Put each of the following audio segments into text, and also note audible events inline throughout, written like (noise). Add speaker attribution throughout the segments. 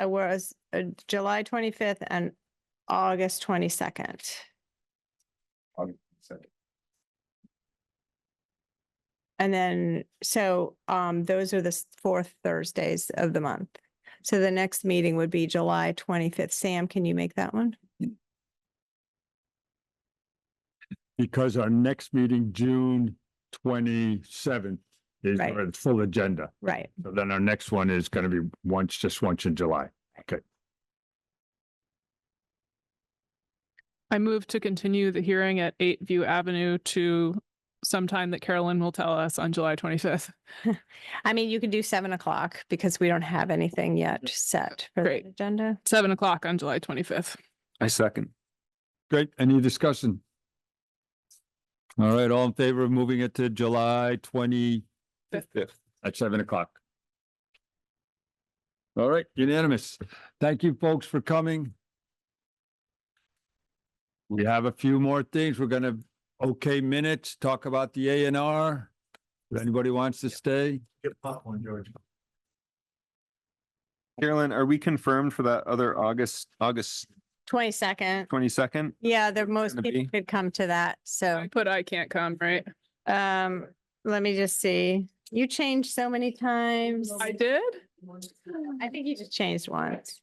Speaker 1: uh, was uh, July twenty-fifth and August twenty-second.
Speaker 2: August second.
Speaker 1: And then, so um, those are the s- fourth Thursdays of the month. So the next meeting would be July twenty-fifth. Sam, can you make that one?
Speaker 3: because our next meeting, June twenty-seventh, is
Speaker 1: Right.
Speaker 3: our full agenda.
Speaker 1: Right.
Speaker 3: So then our next one is gonna be once, just once in July.
Speaker 4: I move to continue the hearing at eight View Avenue to sometime that Carolyn will tell us on July twenty-fifth.
Speaker 1: I mean, you could do seven o'clock because we don't have anything yet set for the
Speaker 4: Great.
Speaker 1: agenda.
Speaker 4: Seven o'clock on July twenty-fifth.
Speaker 5: I second.
Speaker 3: Great, any discussion? All right, all in favor of moving it to July twenty
Speaker 5: Fifth.
Speaker 3: at seven o'clock? All right, unanimous. Thank you, folks, for coming. We have a few more things. We're gonna, okay, minutes, talk about the A and R. If anybody wants to stay?
Speaker 2: Get popcorn, George.
Speaker 5: Carolyn, are we confirmed for that other August, August
Speaker 1: Twenty-second.
Speaker 5: twenty-second?
Speaker 1: Yeah, the most
Speaker 5: gonna
Speaker 1: people
Speaker 5: be?
Speaker 1: could come to that. So
Speaker 4: I put I can't come, right?
Speaker 1: um, let me just see. You changed so many times.
Speaker 4: I did?
Speaker 1: I think you just changed once.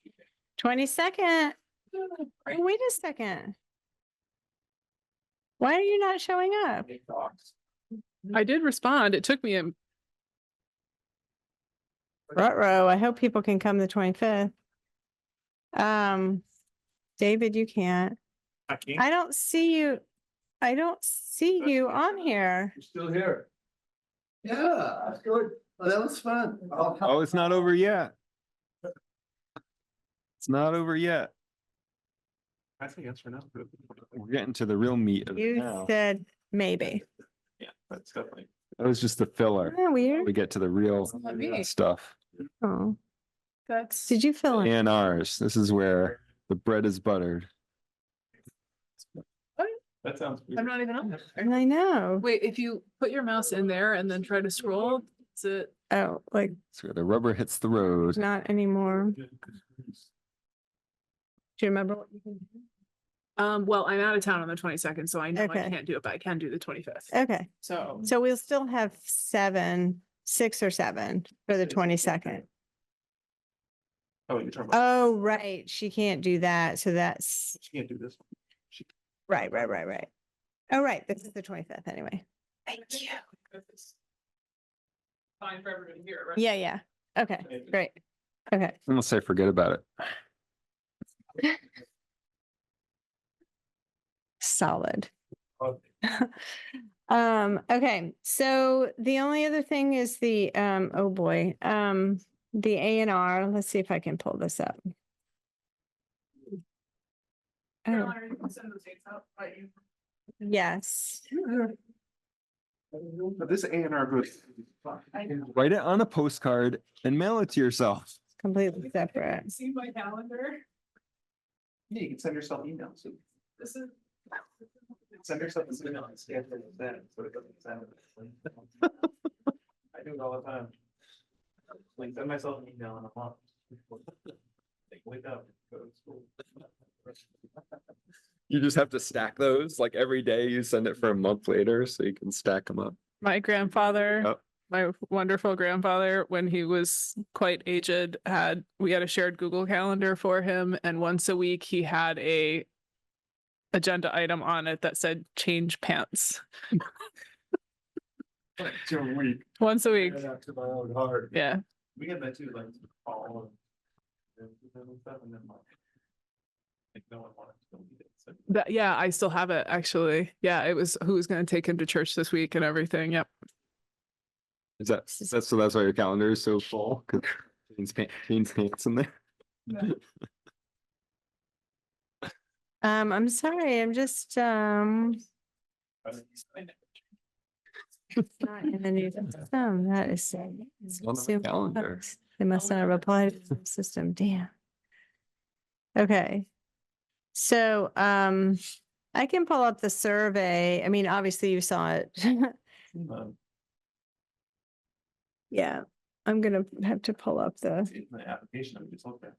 Speaker 1: Twenty-second. Wait a second. Why are you not showing up?
Speaker 4: I did respond. It took me a
Speaker 1: Ruh-roh, I hope people can come the twenty-fifth. Um, David, you can't.
Speaker 2: I can't.
Speaker 1: I don't see you. I don't see you on here.
Speaker 2: You're still here. Yeah, that's good. Well, that was fun.
Speaker 5: Oh, it's not over yet. It's not over yet.
Speaker 2: I think that's enough.
Speaker 5: We're getting to the real meat of it
Speaker 1: You
Speaker 5: now.
Speaker 1: said maybe.
Speaker 2: Yeah, that's definitely.
Speaker 5: That was just the filler.
Speaker 1: Isn't that
Speaker 5: We
Speaker 1: weird?
Speaker 5: get to the real uh,
Speaker 4: not me.
Speaker 5: stuff.
Speaker 1: Oh. Did you fill in?
Speaker 5: A and Rs. This is where the bread is buttered.
Speaker 2: That sounds.
Speaker 4: I'm not even on there.
Speaker 1: I know.
Speaker 4: Wait, if you put your mouse in there and then try to scroll, it's it.
Speaker 1: Oh, like
Speaker 5: It's where the rubber hits the road.
Speaker 1: not anymore. Do you remember? what you can do?
Speaker 4: Um, well, I'm out of town on the twenty-second, so I know I
Speaker 1: Okay.
Speaker 4: can't do it, but I can do the twenty-fifth.
Speaker 1: Okay,
Speaker 4: So
Speaker 1: so we'll still have seven, six or seven for the twenty-second.
Speaker 2: Oh, you're talking about,
Speaker 1: Oh, right. She can't do that. So that's,
Speaker 2: she can't do this. one. She-
Speaker 1: right, right, right, right. Oh, right. This is the twenty-fifth anyway.
Speaker 4: Thank you. Fine for everyone to hear, right?
Speaker 1: Yeah, yeah. Okay, great. Okay.
Speaker 5: Unless I forget about it.
Speaker 1: Solid.
Speaker 2: Oh,
Speaker 1: (laughs) Um, okay, so the only other thing is the, um, oh boy, um, the A and R. Let's see if I can pull this up. Oh,
Speaker 4: Caroline, you can send those dates out, right? You-
Speaker 1: yes.
Speaker 2: But this A and R goes.
Speaker 5: Write it on a postcard and mail it to yourself.
Speaker 1: Completely separate.
Speaker 4: See my calendar?
Speaker 2: Yeah, you can send yourself emails.
Speaker 4: This is.
Speaker 2: Send yourself an email and scan for it then, so it doesn't sound. I do it all the time. Like send myself an email in a month. Like wake up, go to school.
Speaker 5: You just have to stack those like every day. You send it for a month later so you can stack them up.
Speaker 4: My grandfather,
Speaker 5: Yep.
Speaker 4: my wonderful grandfather, when he was quite aged, had, we had a shared Google Calendar for him and once a week he had a agenda item on it that said change pants,
Speaker 2: It's a week.
Speaker 4: once a week.
Speaker 2: After my own heart.
Speaker 4: Yeah,
Speaker 2: We had that too, like all of. And stuff and then like. Like no one wanted to delete it, so.
Speaker 4: that, yeah, I still have it actually. Yeah, it was who was gonna take him to church this week and everything. Yep.
Speaker 5: Is that, is that, so that's why your calendar is so full? 'Cause (laughs) Jeans pants, jeans pants in there.
Speaker 1: Um, I'm sorry, I'm just, um, not in the new system. That is.
Speaker 5: on my
Speaker 1: so
Speaker 5: calendar.
Speaker 1: bugs. They must not have applied to the system, damn. Okay. So, um, I can pull up the survey. I mean, obviously you saw it. (laughs)
Speaker 2: um,
Speaker 1: Yeah, I'm gonna have to pull up the.
Speaker 2: it's in The application, I'm just looking.